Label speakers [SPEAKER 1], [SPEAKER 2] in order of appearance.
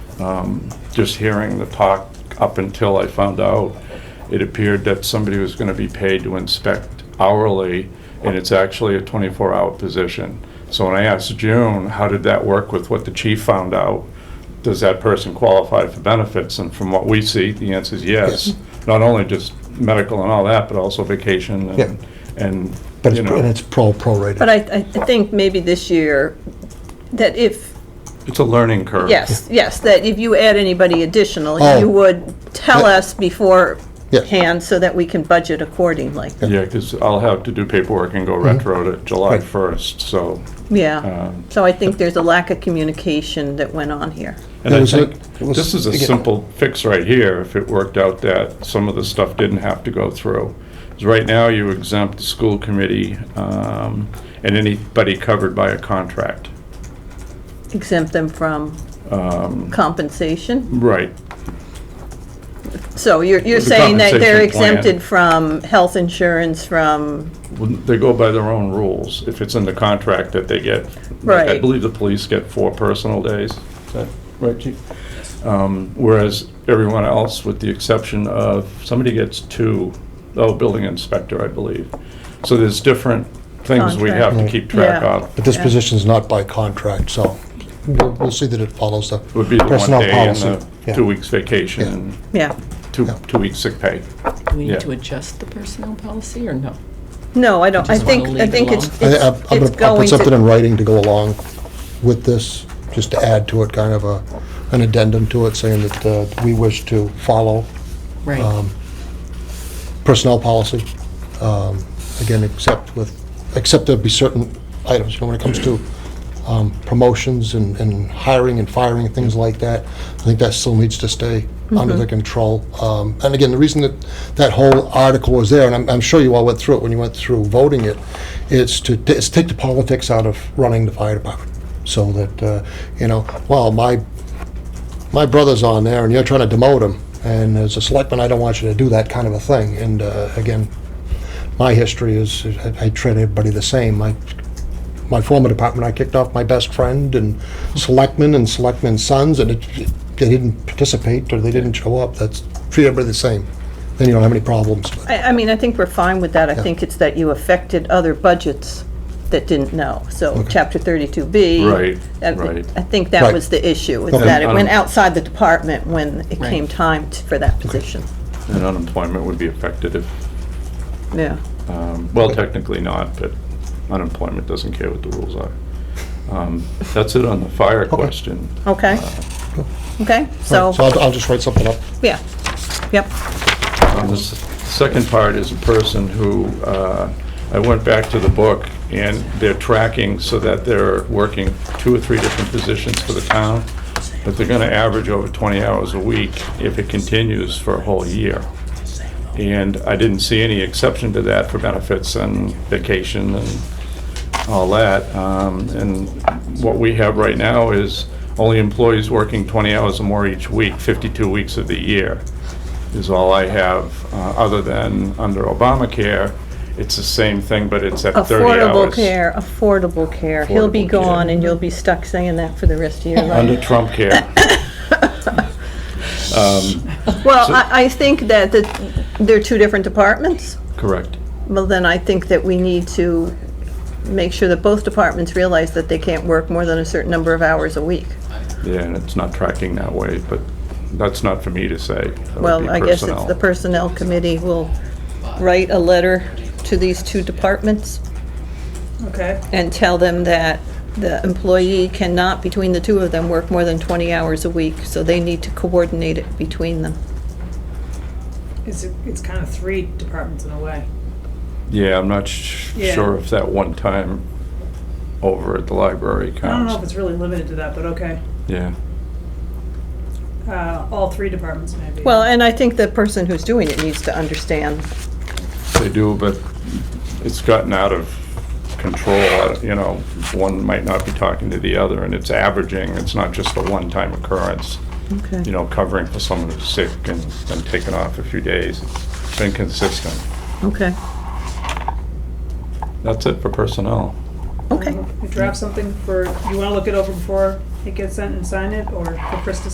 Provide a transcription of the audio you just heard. [SPEAKER 1] um, just hearing the talk up until I found out, it appeared that somebody was going to be paid to inspect hourly, and it's actually a 24-hour position. So when I asked June, how did that work with what the chief found out? Does that person qualify for benefits? And from what we see, the answer is yes. Not only just medical and all that, but also vacation and, and,
[SPEAKER 2] But
[SPEAKER 1] you
[SPEAKER 2] it's, and
[SPEAKER 1] know,
[SPEAKER 2] it's pro, prorated.
[SPEAKER 3] But I, I think maybe this year, that if,
[SPEAKER 1] it's a learning curve.
[SPEAKER 3] yes, yes, that if you add anybody additional,
[SPEAKER 2] Oh.
[SPEAKER 3] you would tell
[SPEAKER 2] Yeah.
[SPEAKER 3] us beforehand so that we can budget accordingly.
[SPEAKER 1] Yeah, because I'll have to do paperwork and go retro to July
[SPEAKER 2] Mm-hmm. Right.
[SPEAKER 1] 1st, so.
[SPEAKER 3] Yeah.
[SPEAKER 1] Um,
[SPEAKER 3] So I think there's a lack of communication that went on here.
[SPEAKER 1] And
[SPEAKER 2] It
[SPEAKER 1] I
[SPEAKER 2] was a-
[SPEAKER 1] think,
[SPEAKER 2] it was-
[SPEAKER 1] this is a
[SPEAKER 2] again-
[SPEAKER 1] simple fix right here, if it worked out that some of the stuff didn't have to go through. 'Cause right now, you exempt the school committee um, and anybody covered by a contract.
[SPEAKER 3] Exempt them from
[SPEAKER 1] Um,
[SPEAKER 3] compensation.
[SPEAKER 1] Right,
[SPEAKER 3] So you're, you're
[SPEAKER 1] The
[SPEAKER 3] saying that they're
[SPEAKER 1] compensation plan.
[SPEAKER 3] exempted from health insurance, from,
[SPEAKER 1] Well, they go by their own rules, if it's in the contract that they get.
[SPEAKER 3] Right.
[SPEAKER 1] I believe the police get four personal days, is that right, chief? Um, Whereas everyone else, with the exception of, somebody gets two, oh, building inspector, I believe. So there's different things we have to
[SPEAKER 3] Contract.
[SPEAKER 1] keep track
[SPEAKER 3] Yeah.
[SPEAKER 1] of.
[SPEAKER 2] But this
[SPEAKER 3] Yeah.
[SPEAKER 2] position's not by contract, so we'll, we'll see that it follows the
[SPEAKER 1] Would be the one
[SPEAKER 2] personnel
[SPEAKER 1] day and
[SPEAKER 2] policy.
[SPEAKER 1] the
[SPEAKER 2] Yeah.
[SPEAKER 1] two weeks vacation
[SPEAKER 2] Yeah.
[SPEAKER 1] and
[SPEAKER 3] yeah.
[SPEAKER 1] two,
[SPEAKER 2] Yeah.
[SPEAKER 1] two weeks sick pay.
[SPEAKER 4] Do we
[SPEAKER 1] Yeah.
[SPEAKER 4] need to adjust the personnel policy or no?
[SPEAKER 3] No, I don't, I
[SPEAKER 4] just wanna
[SPEAKER 3] think, I
[SPEAKER 4] leave it
[SPEAKER 3] think it's,
[SPEAKER 2] I- I- I'm
[SPEAKER 3] it's
[SPEAKER 2] gonna-
[SPEAKER 3] it's
[SPEAKER 2] I'll
[SPEAKER 3] going
[SPEAKER 2] put something in
[SPEAKER 3] to,
[SPEAKER 2] writing to go along with this, just to add to it, kind of a, an addendum to it, saying that uh, we wish to follow Um,
[SPEAKER 4] Right.
[SPEAKER 2] personnel policy. um, Again, except with, except there'd be certain items, you know, when it comes to um, promotions and and hiring and firing and things like that, I think that still needs to stay under the control. Um, And again, the reason that that whole article was there, and I'm- I'm sure you all went through it when you went through voting it, is to, is take the politics out of running the fire department. So that, uh, you know, well, my my brother's on there and you're trying to demote him. And as a selectman, I don't want you to do that kind of a thing. And uh, again, my history is I, I treat everybody the same. My, my former department, I kicked off my best friend and selectmen and selectmen's sons, and it, they didn't participate or they didn't show up. That's treat everybody the same. Then you don't have any problems. But
[SPEAKER 3] I, I mean, I think we're fine with that. I think it's that you affected other budgets that didn't know. So chapter 32B.
[SPEAKER 1] Right,
[SPEAKER 3] that-
[SPEAKER 1] right. Um,
[SPEAKER 3] I think
[SPEAKER 2] Right.
[SPEAKER 3] that was the issue, is
[SPEAKER 2] Okay.
[SPEAKER 3] that it
[SPEAKER 1] And
[SPEAKER 3] went
[SPEAKER 1] I'm-
[SPEAKER 3] outside the department when it
[SPEAKER 4] Right.
[SPEAKER 3] came time t- for that position.
[SPEAKER 1] And unemployment would be affected if,
[SPEAKER 3] Yeah.
[SPEAKER 1] um, well, technically not, but unemployment doesn't care what the rules are. Um, That's it on the fire question.
[SPEAKER 3] Okay? Okay, so,
[SPEAKER 2] so I'll, I'll just write something up.
[SPEAKER 3] yeah. Yep.
[SPEAKER 1] On Um, the s- second part is a person who, uh, I went back to the book, and they're tracking so that they're working two or three different positions for the town, but they're gonna average over 20 hours a week if it continues for a whole year. And I didn't see any exception to that for benefits and vacation and all that. Um, And what we have right now is only employees working 20 hours or more each week, 52 weeks of the year is all I have, uh, other than under Obamacare, it's the same thing, but it's at 30 hours.
[SPEAKER 3] Affordable care, affordable care. He'll be
[SPEAKER 1] Affordable care.
[SPEAKER 3] gone and you'll be stuck saying that for the rest of your life.
[SPEAKER 1] Under Trump care. Um,
[SPEAKER 3] Well, I, I think that, that they're two different departments.
[SPEAKER 1] Correct.
[SPEAKER 3] Well, then I think that we need to make sure that both departments realize that they can't work more than a certain number of hours a week.
[SPEAKER 1] Yeah, and it's not tracking that way, but that's not for me to say. That would be
[SPEAKER 3] Well, I guess it's the
[SPEAKER 1] personnel.
[SPEAKER 3] Personnel Committee will write a letter to these two departments
[SPEAKER 5] Okay.
[SPEAKER 3] and tell them that the employee cannot, between the two of them, work more than 20 hours a week, so they need to coordinate it between them.
[SPEAKER 5] It's, it's kind of three departments in a way.
[SPEAKER 1] Yeah, I'm not sh-
[SPEAKER 5] Yeah.
[SPEAKER 1] sure if that one time over at the library counts.
[SPEAKER 5] I don't know if it's really limited to that, but okay.
[SPEAKER 1] Yeah,
[SPEAKER 5] Uh, all three departments maybe.
[SPEAKER 3] Well, and I think the person who's doing it needs to understand.
[SPEAKER 1] they do, but it's gotten out of control, I don't- you know, one might not be talking to the other, and it's averaging, it's not just a one-time occurrence. you
[SPEAKER 3] Okay.
[SPEAKER 1] know, covering for someone who's sick and then taking off a few days. It's been consistent.
[SPEAKER 3] Okay,
[SPEAKER 1] That's it for personnel.
[SPEAKER 3] okay.
[SPEAKER 5] Um, You Draft something for, you want to look it over before it gets sent and sign it, or for Chris to